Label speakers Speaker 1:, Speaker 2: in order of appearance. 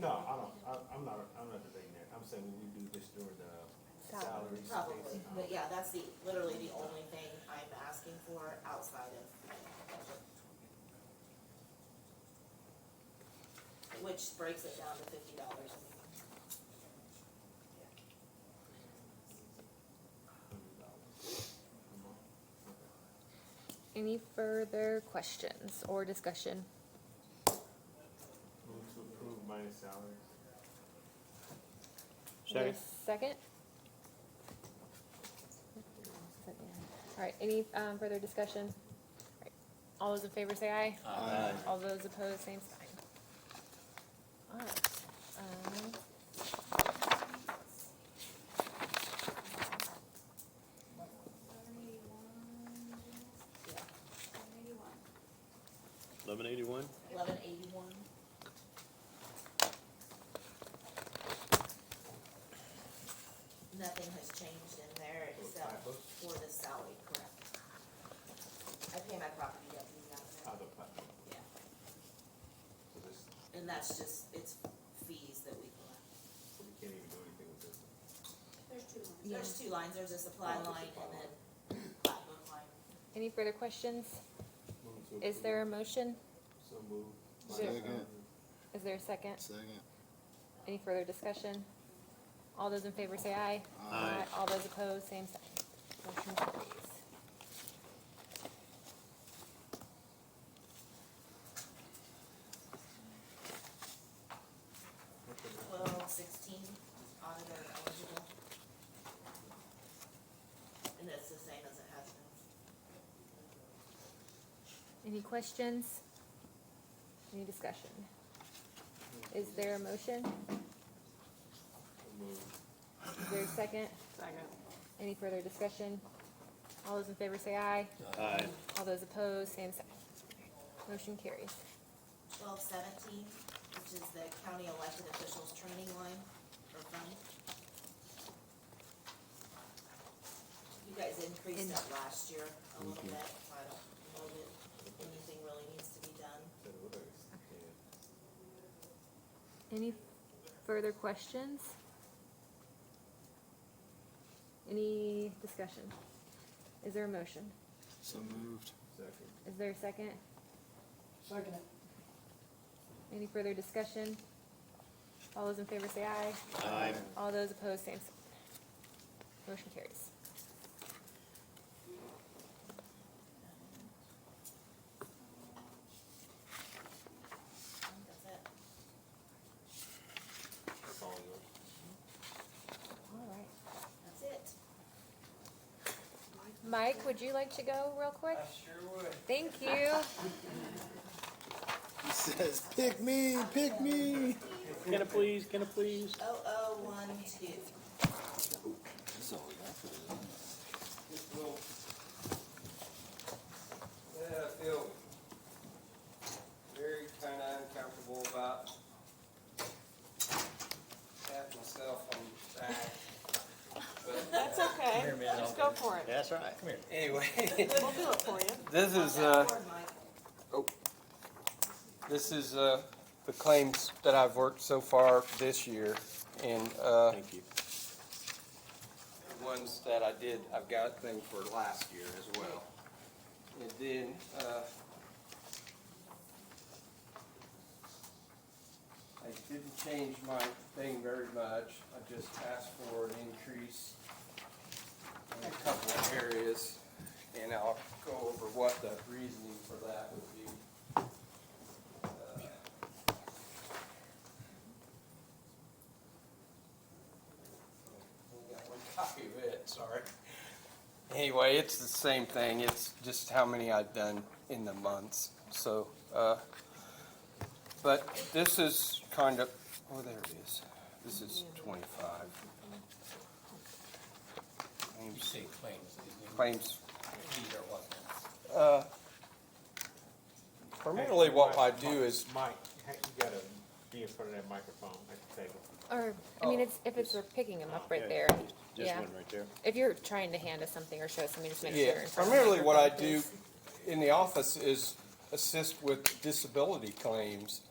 Speaker 1: No, I don't, I, I'm not, I'm not debating that, I'm saying we do this during the salary space.
Speaker 2: Probably, but yeah, that's the, literally the only thing I'm asking for outside of budget. Which breaks it down to fifty dollars.
Speaker 3: Any further questions or discussion?
Speaker 1: Move to approve minus salary.
Speaker 3: Is there a Second? All right, any um, further discussion? All right, All those in favor say aye.
Speaker 4: Aye.
Speaker 3: All those opposed, same sign. All right. um,
Speaker 4: Eleven eighty-one?
Speaker 2: Eleven eighty-one, nothing has changed in there
Speaker 1: Little
Speaker 2: except
Speaker 1: typo.
Speaker 2: for the salary, correct? I pay my property deputy out of that,
Speaker 1: Other platform,
Speaker 2: yeah,
Speaker 1: so this,
Speaker 2: and that's just, it's fees that we collect.
Speaker 1: so we can't even do anything with this.
Speaker 5: There's two lines.
Speaker 2: There's two lines, there's a supply
Speaker 1: Oh, the
Speaker 2: line
Speaker 1: supply
Speaker 2: and
Speaker 1: line.
Speaker 2: then Platinum line.
Speaker 3: Any further questions?
Speaker 1: Move to
Speaker 3: Is
Speaker 1: approve.
Speaker 3: there a motion?
Speaker 1: So move.
Speaker 3: Is there-
Speaker 1: minus salary.
Speaker 3: Is there a second?
Speaker 6: Second.
Speaker 3: Any further discussion? All those in favor say aye.
Speaker 4: Aye.
Speaker 3: All those opposed, same sign. Motion carries.
Speaker 2: Twelve sixteen, auditor eligible. And it's the same as it has been.
Speaker 3: Any questions? Any discussion? Is there a motion?
Speaker 1: So move.
Speaker 3: Is there a second?
Speaker 7: Second.
Speaker 3: Any further discussion? All those in favor say aye.
Speaker 4: Aye.
Speaker 3: All those opposed, same sign. Motion carries.
Speaker 2: Twelve seventeen, which is the county elected officials training line or fund. You guys increased
Speaker 3: In-
Speaker 2: that last year a little bit, so I don't know that anything really needs to be done.
Speaker 1: Said it was, yeah.
Speaker 3: Any further questions? Any discussion? Is there a motion?
Speaker 6: So moved.
Speaker 1: Second.
Speaker 3: Is there a second? Second. Any further discussion? All those in favor say aye.
Speaker 4: Aye.
Speaker 3: All those opposed, same sign. Motion carries.
Speaker 2: I think that's it.
Speaker 1: That's all yours.
Speaker 3: All right.
Speaker 2: That's it.
Speaker 3: Mike, would you like to go real quick?
Speaker 8: I sure would.
Speaker 3: Thank you.
Speaker 6: He says, pick me, pick me.
Speaker 4: Can I please, can I please?
Speaker 2: Oh, oh, one, two.
Speaker 6: That's all we got for today.
Speaker 8: Just will. Yeah, I feel very kinda uncomfortable about tapping myself on the back. But
Speaker 7: That's
Speaker 1: uh,
Speaker 7: okay. Just go for it.
Speaker 4: That's right.
Speaker 8: anyway,
Speaker 7: We'll do it for you.
Speaker 8: this is, uh,
Speaker 2: That board, Mike.
Speaker 8: this is, uh, the claims that I've worked so far this year. And, uh,
Speaker 4: Thank you.
Speaker 8: the ones that I did, I've got thing for last year as well. And then, uh, I didn't change my thing very much, I just asked for an increase in a couple of areas, and I'll go over what the reasoning for that would be. Uh, Only got one copy of it, sorry. Anyway, it's the same thing, it's just how many I've done in the months, so, uh, but this is kind of, oh, there it is, this is twenty-five.
Speaker 9: You say claims, isn't it?
Speaker 8: Claims,
Speaker 9: These are what?
Speaker 8: uh, primarily what I do is,
Speaker 1: Mike, hey, you gotta be in front of that microphone at the table.
Speaker 3: Or, I mean, it's, if it's, we're picking them up right there.
Speaker 4: Just
Speaker 3: Yeah.
Speaker 4: one right there.
Speaker 3: If you're trying to hand us something or show us something, just make sure.
Speaker 8: yeah,
Speaker 3: you're in front of the
Speaker 8: primarily what I
Speaker 3: microphone,
Speaker 8: do in the office is assist with disability claims.